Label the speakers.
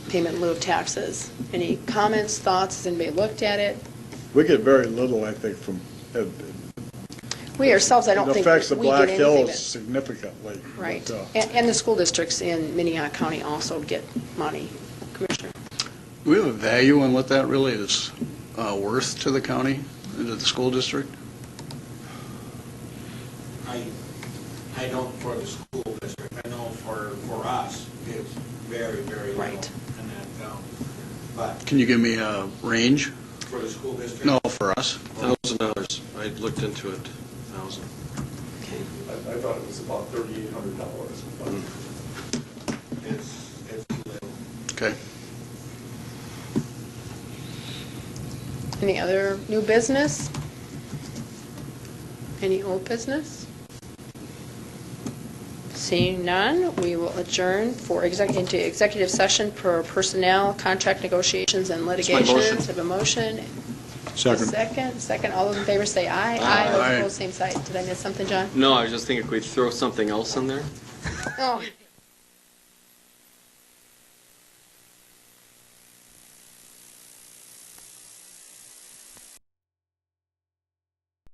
Speaker 1: payment in lieu of taxes. Any comments, thoughts? Has anybody looked at it?
Speaker 2: We get very little, I think, from, it
Speaker 1: We ourselves, I don't
Speaker 2: It
Speaker 1: think
Speaker 2: affects the
Speaker 1: we get
Speaker 2: Black
Speaker 1: anything.
Speaker 2: Hills
Speaker 1: that-
Speaker 2: significantly. uh,
Speaker 1: Right.
Speaker 2: So,
Speaker 1: And, and the school districts in Minnehaha County also get money. Commissioner?
Speaker 3: Do we have a value on what that really is uh, worth to the county, and to the school district?
Speaker 4: I, I don't for the school district, I know for, for us, it's very, very low.
Speaker 1: Right.
Speaker 4: And that, um, but
Speaker 3: Can you give me a range?
Speaker 4: for the school district.
Speaker 3: No, for us.
Speaker 5: Thousand dollars, I looked into it, thousand.
Speaker 6: I, I thought it was about thirty-eight hundred dollars, but
Speaker 4: It's, it's little.
Speaker 3: Okay.
Speaker 1: Any other new business? Any old business? Seeing none, we will adjourn for exec, into executive session for personnel, contract negotiations, and
Speaker 5: my motion.
Speaker 1: litigations. Have a motion. Second, second, all those in favor say aye. Aye. Those
Speaker 3: Aye.
Speaker 1: opposed, same side. Did I miss something, John?
Speaker 5: No, I was just thinking, could we throw something else in there?
Speaker 1: Oh,